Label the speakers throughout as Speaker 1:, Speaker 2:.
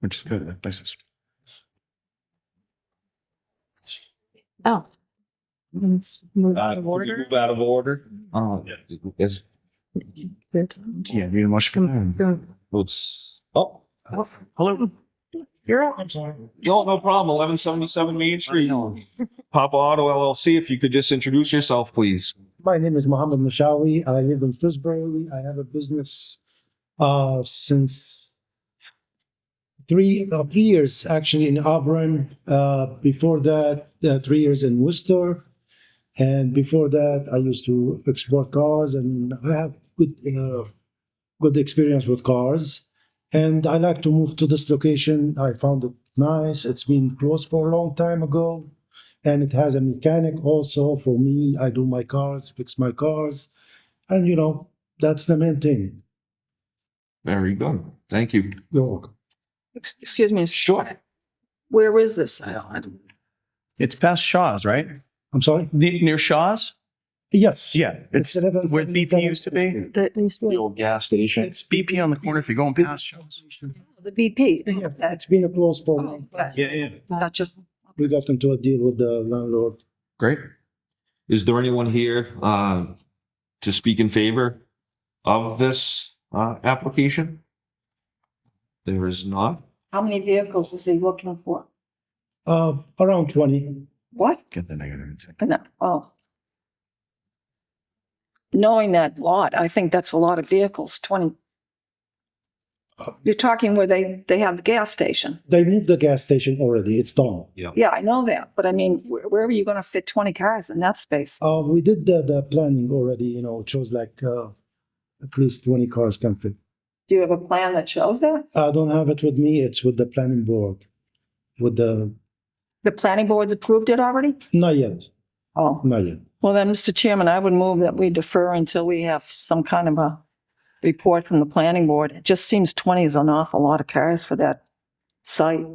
Speaker 1: which is good. That place is
Speaker 2: Oh. Move move
Speaker 3: Uh,
Speaker 2: out
Speaker 3: can
Speaker 2: of
Speaker 3: we
Speaker 2: order.
Speaker 3: Move out of order.
Speaker 1: oh
Speaker 3: Yes,
Speaker 1: yeah, you didn't watch film.
Speaker 3: let's- oh,
Speaker 1: Hello.
Speaker 2: You're up.
Speaker 3: no, no problem. Eleven seventy-seven Main Street. Papa Auto LLC, if you could just introduce yourself, please.
Speaker 4: My name is Mohammed Mashawi. I live in Frisbury. I have a business uh, since three uh, three years actually in Auburn. Uh, before that, uh, three years in Worcester, and before that, I used to export cars, and I have good uh, good experience with cars. And I like to move to this location. I found it nice. It's been closed for a long time ago and it has a mechanic also for me. I do my cars, fix my cars, and you know that's the main thing.
Speaker 3: Very good. Thank you.
Speaker 4: You're welcome.
Speaker 5: Ex- Excuse me.
Speaker 3: Sure.
Speaker 5: Where is this? I don't, I don't.
Speaker 1: It's past Shaw's, right?
Speaker 4: I'm sorry.
Speaker 1: Ne- Near Shaw's?
Speaker 4: Yes.
Speaker 1: Yeah,
Speaker 4: It's
Speaker 1: it's
Speaker 4: eleven-
Speaker 1: where BP used to be.
Speaker 2: That needs to be-
Speaker 3: old gas station.
Speaker 1: It's BP on the corner if you're going past Shaw's.
Speaker 2: The BP.
Speaker 4: Yeah, It's been a close for me.
Speaker 5: oh, right.
Speaker 1: Yeah, yeah.
Speaker 5: Gotcha.
Speaker 4: We got into a deal with the landlord.
Speaker 3: Great. Is there anyone here uh, to speak in favor of this uh, application? There is not.
Speaker 5: How many vehicles is he looking for?
Speaker 4: Uh, around twenty.
Speaker 5: What?
Speaker 1: Get the negative.
Speaker 5: No, Oh. Knowing that lot, I think that's a lot of vehicles, twenty. You're talking where they, they have the gas station.
Speaker 4: They moved the gas station already. It's done.
Speaker 5: Yeah, I know that, but I mean, where, where are you gonna fit twenty cars in that space?
Speaker 4: Uh, we did the, the planning already. You know, it shows like uh, at least twenty cars can fit.
Speaker 5: Do you have a plan that shows that?
Speaker 4: I don't have it with me. It's with the planning board. With the
Speaker 5: The planning board's approved it already?
Speaker 4: not yet,
Speaker 5: Oh.
Speaker 4: not yet.
Speaker 5: Well, then, Mr. Chairman, I would move that we defer until we have some kind of a report from the planning board. It just seems 20 is an awful lot of cars for that site.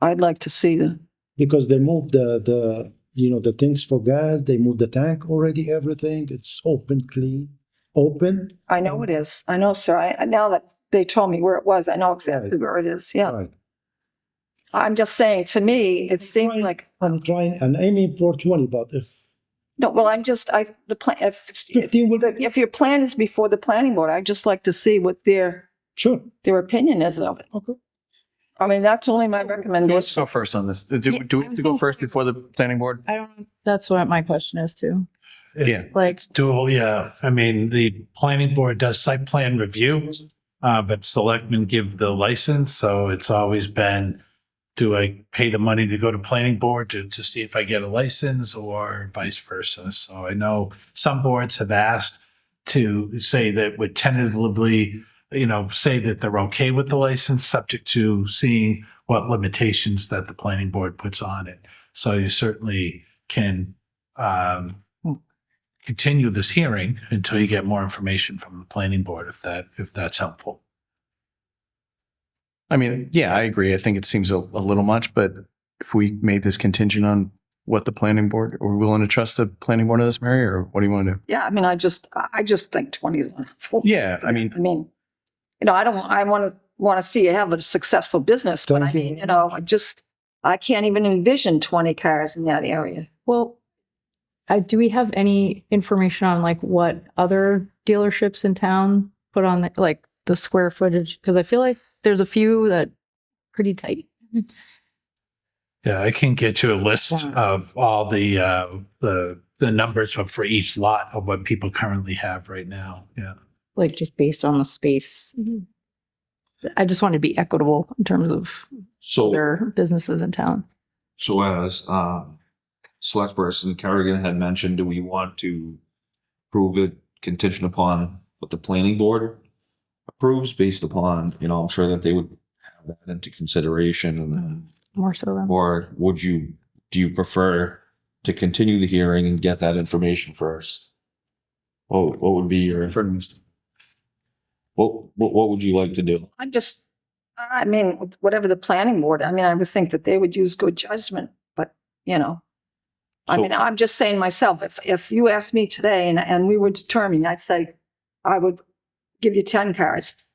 Speaker 5: I'd like to see the,
Speaker 4: because they moved the the you know the things for gas they moved the tank already everything it's open clean open
Speaker 5: I know it is. I know, sir. I, I- now that they told me where it was, I know exactly where it is. Yeah.
Speaker 4: right
Speaker 5: I'm just saying, to me, it seemed like,
Speaker 4: i'm trying and aiming for 20 but if
Speaker 5: no, well, I'm just, I, the plan, if, if
Speaker 4: 15 would
Speaker 5: if your plan is before the planning board, I'd just like to see what their,
Speaker 4: sure
Speaker 5: their opinion is of it.
Speaker 4: okay
Speaker 5: I mean, that's only my
Speaker 1: Let's
Speaker 5: recommendation.
Speaker 1: go first on this. Do,
Speaker 2: Yeah,
Speaker 1: do, do
Speaker 2: I was
Speaker 1: we go
Speaker 2: going-
Speaker 1: first before the planning board?
Speaker 2: I don't, that's what my question is too.
Speaker 1: Yeah.
Speaker 2: Like,
Speaker 6: It's dual, yeah. I mean, the planning board does site plan review, uh, but selectmen give the license, so it's always been, do I pay the money to go to planning board to, to see if I get a license or vice versa? So I know some boards have asked to say that would tentatively, you know, say that they're okay with the license, subject to seeing what limitations that the planning board puts on it. So you certainly can, um, continue this hearing until you get more information from the planning board, if that, if that's helpful.
Speaker 1: I mean, yeah, I agree. I think it seems a, a little much, but if we made this contingent on what the planning board, are we willing to trust the planning board of this, Mary, or what do you want to do?
Speaker 5: Yeah, I mean, I just, I I just think 20 is an awful.
Speaker 1: Yeah, I mean,
Speaker 5: I mean, you know, I don't, I want to, want to see you have a successful business, but I
Speaker 4: Thank you.
Speaker 5: mean, you know, I just, I can't even envision 20 cars in that area.
Speaker 7: Well, uh, do we have any information on like what other dealerships in town put on the, like the square footage? Because I feel like there's a few that pretty tight.
Speaker 6: Yeah, I can get you a list
Speaker 5: Yeah.
Speaker 6: of all the, uh, the, the numbers of- for each lot of what people currently have right now. Yeah.
Speaker 7: like just based on the space.
Speaker 2: Mm-hmm.
Speaker 7: I just want to be equitable in terms of
Speaker 3: So,
Speaker 7: their businesses in town.
Speaker 3: so as um, select person Kerrigan had mentioned, do we want to prove it contingent upon what the planning board approves based upon, you know, I'm sure that they would have that into consideration and then
Speaker 7: More so than
Speaker 3: Or would you, do you prefer to continue the hearing and get that information first? What, what would be your,
Speaker 1: for instance,
Speaker 3: what, what, what would you like to do?
Speaker 5: I'm just, I mean, whatever the planning board, I mean, I would think that they would use good judgment, but, you know. I
Speaker 3: So-
Speaker 5: mean, I'm just saying myself, if, if you asked me today and, and we were determined, I'd say, I would give you 10 cars.